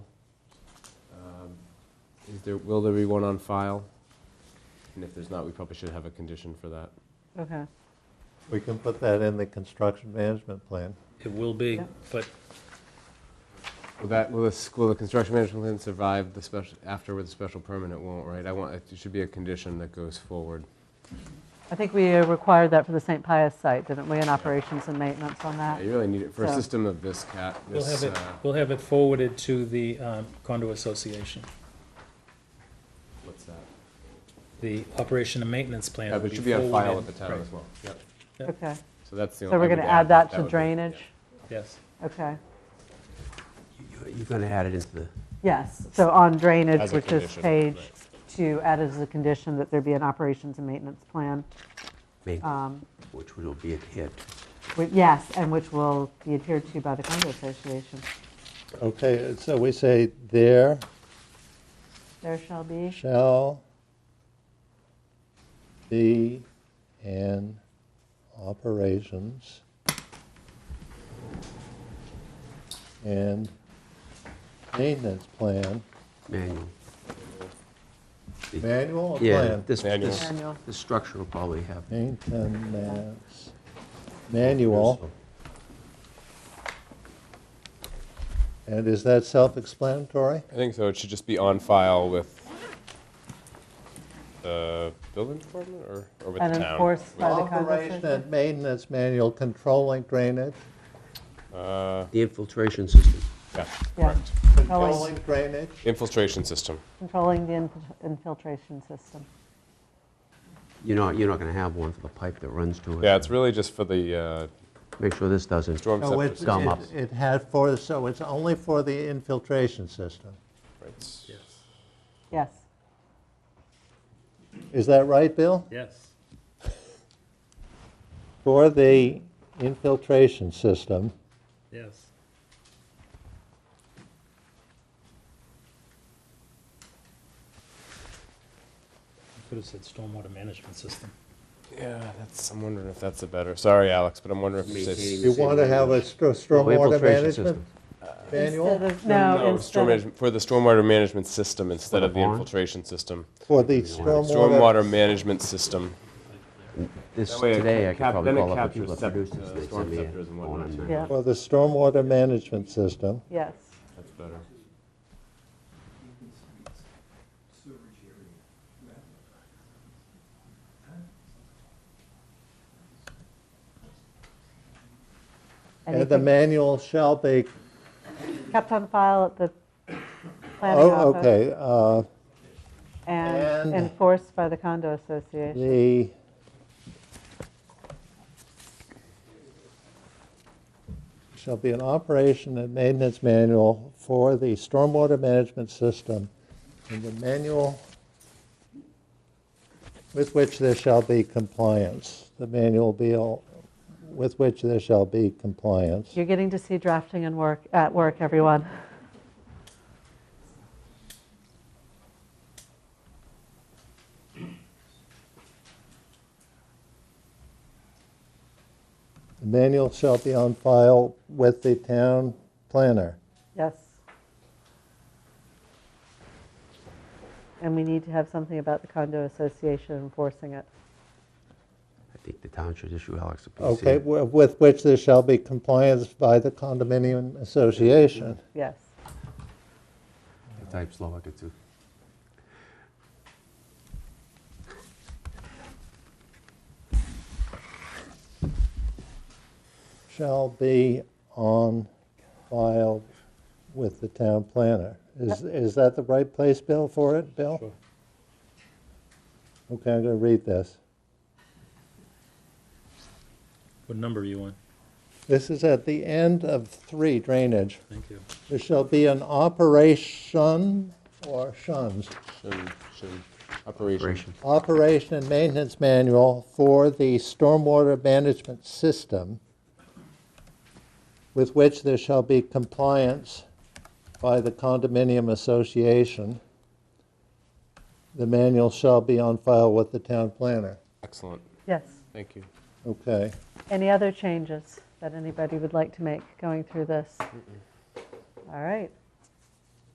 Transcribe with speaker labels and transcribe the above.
Speaker 1: Is there, will there be one on file? And if there's not, we probably should have a condition for that.
Speaker 2: Okay.
Speaker 3: We can put that in the construction management plan.
Speaker 4: It will be,
Speaker 2: Yeah.
Speaker 4: but
Speaker 1: Will that, will the, will the construction management plan survive the special, after with the special permit, it won't, right? I want, it should be a condition that goes forward.
Speaker 2: I think we uh, required that for the St. Pius site, didn't we, in operations and maintenance on
Speaker 1: Yeah,
Speaker 2: that?
Speaker 1: You really need it for a
Speaker 2: So-
Speaker 1: system of this cat,
Speaker 4: we'll
Speaker 1: this,
Speaker 4: have it,
Speaker 1: uh,
Speaker 4: we'll have it forwarded to the um, condo association.
Speaker 1: what's that?
Speaker 4: The operation and maintenance plan.
Speaker 1: Yeah,
Speaker 4: will
Speaker 1: but it should be on file
Speaker 4: forwarded-
Speaker 1: with the town
Speaker 4: right,
Speaker 1: as well. Yep.
Speaker 4: Yeah.
Speaker 2: Okay,
Speaker 1: So that's the
Speaker 2: so
Speaker 1: only.
Speaker 2: we're
Speaker 1: I would
Speaker 2: going to add that
Speaker 1: would
Speaker 2: to
Speaker 1: be-
Speaker 2: drainage?
Speaker 4: Yes,
Speaker 2: Okay,
Speaker 5: You're going to add it into the,
Speaker 2: yes, so on drainage,
Speaker 1: As a
Speaker 2: which is
Speaker 1: condition,
Speaker 2: page
Speaker 1: right.
Speaker 2: two, add as a condition that there be an operations and maintenance plan,
Speaker 5: main-
Speaker 2: um,
Speaker 5: which will be adhered to.
Speaker 2: wi- yes, and which will be adhered to by the condo association.
Speaker 3: Okay, so we say there
Speaker 2: There shall be,
Speaker 3: shall be an operations and maintenance plan,
Speaker 5: manual. The-
Speaker 3: manual or
Speaker 5: Yeah,
Speaker 3: plan?
Speaker 5: this,
Speaker 1: Oh, Manual.
Speaker 5: this,
Speaker 2: Manual.
Speaker 5: this structure will probably have.
Speaker 3: Maintenance, manual, and is that self-explanatory?
Speaker 1: I think so. It should just be on file with the building department or, or with
Speaker 2: and
Speaker 1: the town.
Speaker 2: enforced by the condo
Speaker 3: Operation
Speaker 2: association.
Speaker 3: and maintenance manual controlling drainage,
Speaker 1: Uh,
Speaker 5: The infiltration system.
Speaker 1: yeah,
Speaker 2: Yeah.
Speaker 1: correct.
Speaker 3: controlling drainage.
Speaker 1: Infiltration system.
Speaker 2: Controlling the inf- infiltration system.
Speaker 5: You're not, you're not going to have one for the pipe that runs to it.
Speaker 1: Yeah, it's really just for the uh,
Speaker 5: Make sure this doesn't.
Speaker 1: storm
Speaker 3: So
Speaker 1: scepter
Speaker 3: Oh, it's,
Speaker 1: system.
Speaker 5: Gum
Speaker 3: it
Speaker 5: up.
Speaker 3: it had for, so it's only for the infiltration system.
Speaker 1: Right.
Speaker 2: Yes,
Speaker 3: Is that right, Bill?
Speaker 4: yes.
Speaker 3: For the infiltration system,
Speaker 4: Yes. I Could have said stormwater management system.
Speaker 1: Yeah, that's, I'm wondering if that's a better, sorry, Alex, but I'm wondering if it's.
Speaker 5: Maintaining
Speaker 3: you want to have a stro- stormwater
Speaker 5: Oh, Infiltration
Speaker 3: management
Speaker 5: system.
Speaker 2: instead
Speaker 3: manual
Speaker 2: of, no,
Speaker 1: storm
Speaker 2: instead of,
Speaker 1: management, for the stormwater management system instead
Speaker 5: the
Speaker 1: of the
Speaker 5: barn?
Speaker 1: infiltration system.
Speaker 3: for the
Speaker 1: Stormwater
Speaker 3: stormwater.
Speaker 1: management system.
Speaker 5: This,
Speaker 1: way it
Speaker 5: today, I could
Speaker 1: cap-
Speaker 5: probably
Speaker 1: then it
Speaker 5: call up the
Speaker 1: captures
Speaker 5: people
Speaker 1: sep-
Speaker 5: that produced this.
Speaker 1: uh,
Speaker 5: and they'd
Speaker 1: storm
Speaker 5: send me a
Speaker 1: scepters and
Speaker 5: phone
Speaker 1: whatnot,
Speaker 5: and
Speaker 1: too.
Speaker 5: that.
Speaker 2: yeah,
Speaker 3: For the stormwater management system,
Speaker 2: yes,
Speaker 1: That's better.
Speaker 3: and the
Speaker 2: anything
Speaker 3: manual shall be,
Speaker 2: kept on file at the planning
Speaker 3: oh,
Speaker 2: office.
Speaker 3: okay, uh,
Speaker 2: And
Speaker 3: And-
Speaker 2: enforced by the condo association.
Speaker 3: the shall be an operation and maintenance manual for the stormwater management system, and the manual with which there shall be compliance. The manual be all, with which there shall be compliance.
Speaker 2: You're getting to see drafting and work, at work, everyone.
Speaker 3: The manual shall be on file with the town planner.
Speaker 2: Yes. And we need to have something about the condo association enforcing it.
Speaker 5: I think the town should issue Alex a PC.
Speaker 3: Okay, wi- with which there shall be compliance by the condominium association.
Speaker 2: Yes.
Speaker 5: I Type Slovak, it's a-
Speaker 3: shall be on file with the town planner. Is, is that the right place, Bill, for it, Bill?
Speaker 4: Sure.
Speaker 3: Okay, I'm going to read this.
Speaker 4: What number are you on?
Speaker 3: This is at the end of three drainage.
Speaker 4: Thank you.
Speaker 3: There shall be an operation or shuns,
Speaker 1: Shouldn't- shouldn't- Operation.
Speaker 5: Operation.
Speaker 3: operation and maintenance manual for the stormwater management system with which there shall be compliance by the condominium association. The manual shall be on file with the town planner.
Speaker 1: Excellent,
Speaker 2: Yes.
Speaker 1: thank you.
Speaker 3: Okay.
Speaker 2: Any other changes that anybody would like to make going through this? All right.